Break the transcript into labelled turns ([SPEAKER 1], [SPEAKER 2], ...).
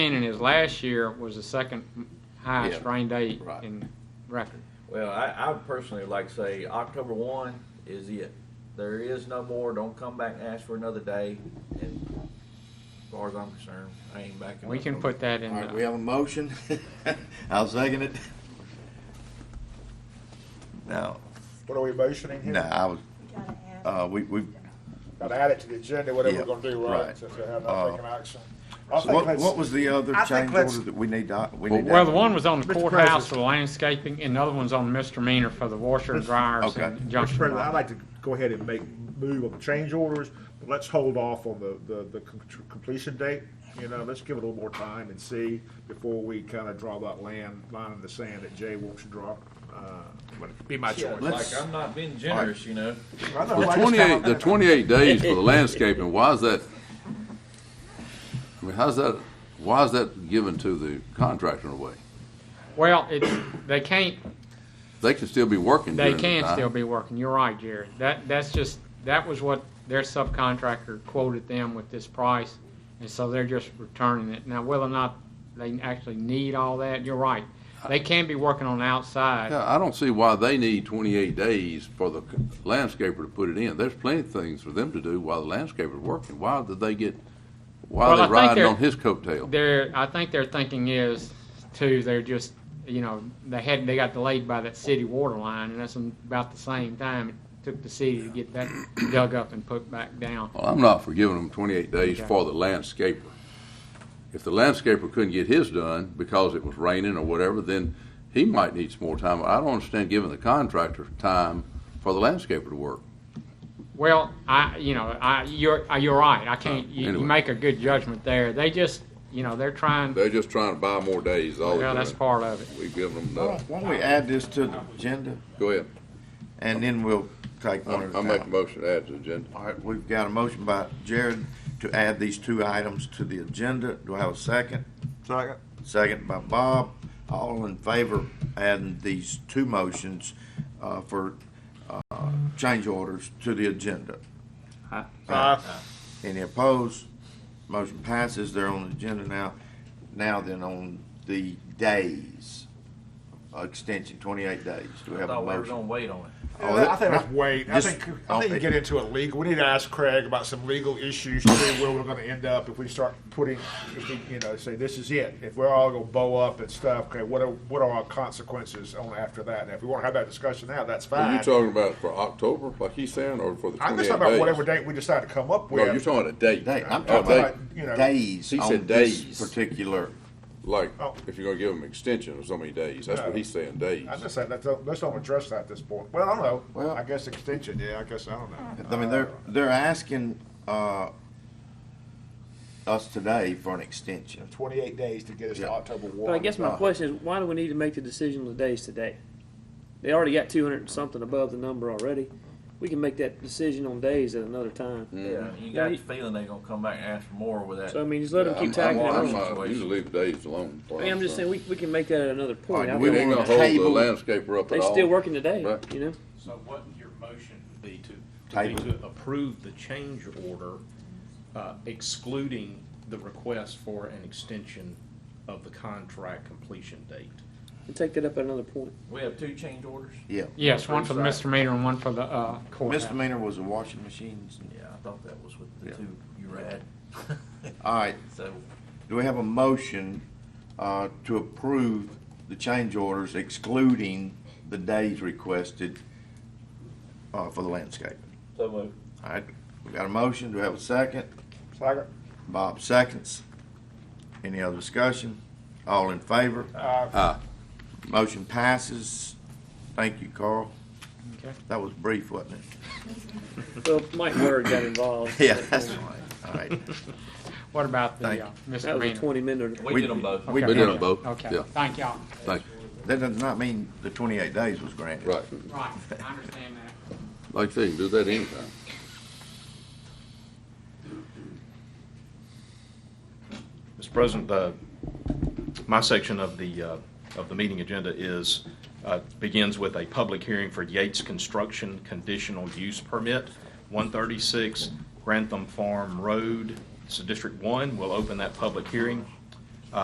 [SPEAKER 1] understanding is last year was the second highest
[SPEAKER 2] Yeah.
[SPEAKER 1] rain day
[SPEAKER 2] Right.
[SPEAKER 1] in record.
[SPEAKER 3] Well, I, I would personally like to say October one is it. There is no more. Don't come back and ask for another day. And as far as I'm concerned, I ain't back. in
[SPEAKER 1] We can
[SPEAKER 3] October.
[SPEAKER 1] put that in
[SPEAKER 2] All right, we
[SPEAKER 1] the,
[SPEAKER 2] have a motion. I'll second it. No,
[SPEAKER 4] What are we motioning here?
[SPEAKER 2] no, I was,
[SPEAKER 5] Gotta add.
[SPEAKER 2] uh, we, we,
[SPEAKER 4] Gotta add it to the agenda, whatever
[SPEAKER 2] Yeah,
[SPEAKER 4] we're gonna do, right?
[SPEAKER 2] right.
[SPEAKER 4] Since we have
[SPEAKER 2] Uh,
[SPEAKER 4] not taken action. I think
[SPEAKER 2] what,
[SPEAKER 4] let's-
[SPEAKER 2] what was the other
[SPEAKER 6] I think
[SPEAKER 2] change
[SPEAKER 6] let's-
[SPEAKER 2] order that we need to, we need to?
[SPEAKER 1] well, the one was on the
[SPEAKER 6] Mr.
[SPEAKER 1] courthouse
[SPEAKER 6] President.
[SPEAKER 1] for landscaping, and the other one's on misdemeanor for the washer and dryers
[SPEAKER 2] okay.
[SPEAKER 1] and
[SPEAKER 6] Mr.
[SPEAKER 1] junction.
[SPEAKER 6] President, I'd
[SPEAKER 1] lock.
[SPEAKER 6] like to go ahead and make, move on the change orders, but let's hold off on the, the, the com- tr- completion date. You know, let's give it a little more time and see before we kind of draw that land, line in the sand that Jay wants to draw. Uh, but it'd Be my
[SPEAKER 3] Yeah,
[SPEAKER 6] choice.
[SPEAKER 2] Let's-
[SPEAKER 3] like I'm not being generous, you know.
[SPEAKER 6] I know, I
[SPEAKER 7] The
[SPEAKER 6] just kinda-
[SPEAKER 7] twenty-eight, the twenty-eight days for the landscaping, why is that? I mean, how's that, why is that given to the contractor in a way?
[SPEAKER 1] Well, it's, they can't,
[SPEAKER 7] They can still be working
[SPEAKER 1] they
[SPEAKER 7] during the
[SPEAKER 1] can
[SPEAKER 7] time.
[SPEAKER 1] still be working. You're right, Jared. That, that's just, that was what their subcontractor quoted them with this price, and so they're just returning it. Now, whether or not they actually need all that, you're right. They can be working on the outside.
[SPEAKER 7] Yeah, I don't see why they need twenty-eight days for the landscaper to put it in. There's plenty of things for them to do while the landscaper's working. Why did they get, why
[SPEAKER 1] Well,
[SPEAKER 7] are
[SPEAKER 1] I
[SPEAKER 7] they
[SPEAKER 1] think
[SPEAKER 7] riding
[SPEAKER 1] they're-
[SPEAKER 7] on his coattail?
[SPEAKER 1] They're, I think their thinking is, too, they're just, you know, they had, they got delayed by that city water line, and that's about the same time it took the city to get that dug up and put back down.
[SPEAKER 7] Well, I'm not for giving them twenty-eight days
[SPEAKER 1] Okay.
[SPEAKER 7] for the landscaper. If the landscaper couldn't get his done because it was raining or whatever, then he might need some more time. I don't understand giving the contractor time for the landscaper to work.
[SPEAKER 1] Well, I, you know, I, you're, uh, you're right, I can't, you, you
[SPEAKER 7] Anyway.
[SPEAKER 1] make a good judgment there. They just, you know, they're trying,
[SPEAKER 7] They're just trying to buy more days, all
[SPEAKER 1] well, that's part of it.
[SPEAKER 7] We've given them
[SPEAKER 2] Why don't- why don't we add this to the agenda
[SPEAKER 7] Go ahead.
[SPEAKER 2] and then we'll take one at a time.
[SPEAKER 7] motion to add to the agenda.
[SPEAKER 2] All right, we've got a motion by Jared to add these two items to the agenda. Do I have a second?
[SPEAKER 4] Second.
[SPEAKER 2] Second by Bob. All in favor of adding these two motions uh, for uh, change orders to the agenda?
[SPEAKER 6] Uh,
[SPEAKER 2] Any opposed? Motion passes. They're on the agenda now. Now then, on the days, uh, extension, 28 days. Do we
[SPEAKER 3] I
[SPEAKER 2] have a
[SPEAKER 3] thought we were
[SPEAKER 2] motion?
[SPEAKER 3] gonna wait on it.
[SPEAKER 2] Oh,
[SPEAKER 6] I think
[SPEAKER 2] that-
[SPEAKER 6] let's wait. I
[SPEAKER 2] just-
[SPEAKER 6] think, I think you get into a legal, we need to ask Craig about some legal issues, see where we're gonna end up if we start putting, if we, you know, say, this is it. If we're all gonna bow up and stuff, okay, what are, what are our consequences on after that? Now, if we wanna have that discussion now, that's
[SPEAKER 7] Are
[SPEAKER 6] fine.
[SPEAKER 7] you talking about for October, like he's saying, or for the
[SPEAKER 6] I'm just
[SPEAKER 7] twenty-eight days?
[SPEAKER 6] talking about whatever date we decide to come up
[SPEAKER 7] No, you're
[SPEAKER 6] with,
[SPEAKER 7] talking about a date.
[SPEAKER 2] Day, I'm
[SPEAKER 7] A
[SPEAKER 2] talking
[SPEAKER 7] date,
[SPEAKER 6] you know.
[SPEAKER 2] about days
[SPEAKER 7] He
[SPEAKER 2] on
[SPEAKER 7] said
[SPEAKER 2] this
[SPEAKER 7] days.
[SPEAKER 2] particular,
[SPEAKER 7] Like,
[SPEAKER 6] Oh.
[SPEAKER 7] if you're gonna give them extension of so many days, that's what
[SPEAKER 6] No.
[SPEAKER 7] he's saying, days.
[SPEAKER 6] I'm just saying, let's, don't- let's don't address that at this point. Well, I don't know.
[SPEAKER 2] Well-
[SPEAKER 6] I guess extension, yeah, I guess, I don't know.
[SPEAKER 2] I mean, they're, they're asking uh, us today for an extension.
[SPEAKER 6] Twenty-eight days to get us
[SPEAKER 2] Yeah.
[SPEAKER 6] to October one.
[SPEAKER 8] But I guess my
[SPEAKER 2] Uh,
[SPEAKER 8] question is, why do we need to make the decision on the days today? They already got two hundred and something above the number already. We can make that decision on days at another time.
[SPEAKER 3] Yeah, you got the feeling they're gonna come back and ask for more with that.
[SPEAKER 8] So I mean, just let them
[SPEAKER 7] I'm-
[SPEAKER 8] keep
[SPEAKER 7] I'm-
[SPEAKER 8] tacking
[SPEAKER 7] I'm,
[SPEAKER 8] it on.
[SPEAKER 7] uh, usually leave days alone.
[SPEAKER 8] I mean, I'm just saying, we, we can make that at another point. I
[SPEAKER 2] Alright,
[SPEAKER 7] We
[SPEAKER 8] don't
[SPEAKER 7] ain't
[SPEAKER 8] wanna-
[SPEAKER 7] gonna hold the
[SPEAKER 2] Table.
[SPEAKER 7] landscaper up at
[SPEAKER 8] They
[SPEAKER 7] all.
[SPEAKER 8] still working today,
[SPEAKER 7] Right.
[SPEAKER 8] you know?
[SPEAKER 9] So what your motion would be to, would
[SPEAKER 2] Table.
[SPEAKER 9] be to approve the change order uh, excluding the request for an extension of the contract completion date.
[SPEAKER 8] And take that up at another point.
[SPEAKER 3] We have two change orders.
[SPEAKER 2] Yeah.
[SPEAKER 1] Yes, one for the misdemeanor and one for the, uh, courthouse.
[SPEAKER 2] Misdemeanor was the washing machines.
[SPEAKER 3] Yeah, I thought that was with the
[SPEAKER 2] Yeah.
[SPEAKER 3] two you read.
[SPEAKER 2] All right,
[SPEAKER 3] So
[SPEAKER 2] do we have a motion uh, to approve the change orders excluding the days requested uh, for the landscape?
[SPEAKER 3] so moved.
[SPEAKER 2] All right, we got a motion, do we have a second?
[SPEAKER 6] Second.
[SPEAKER 2] Bob seconds. Any other discussion? All in favor?
[SPEAKER 6] Uh,
[SPEAKER 2] Motion passes. Thank you, Carl.
[SPEAKER 1] Okay.
[SPEAKER 2] That was brief, wasn't it?
[SPEAKER 8] Well, Mike Word got involved.
[SPEAKER 2] Yeah, that's fine. All right.
[SPEAKER 1] What about
[SPEAKER 2] Thank
[SPEAKER 1] the uh,
[SPEAKER 8] That was a
[SPEAKER 1] misdemeanor?
[SPEAKER 8] twenty minute.
[SPEAKER 3] We,
[SPEAKER 2] We-
[SPEAKER 3] did them both.
[SPEAKER 2] we
[SPEAKER 1] Okay.
[SPEAKER 7] We did them both,
[SPEAKER 1] Okay,
[SPEAKER 7] yeah,
[SPEAKER 1] thank y'all.
[SPEAKER 7] thank
[SPEAKER 2] That does not mean the 28 days was granted.
[SPEAKER 7] you, right.
[SPEAKER 1] Right, I understand that.
[SPEAKER 7] Like I say, you can do that anytime.
[SPEAKER 9] Mr. President, the, my section of the, uh, of the meeting agenda is, uh, begins with a public hearing for Yates Construction Conditional Use Permit, 136 Grantham Farm Road. It's a District 1. We'll open that public hearing.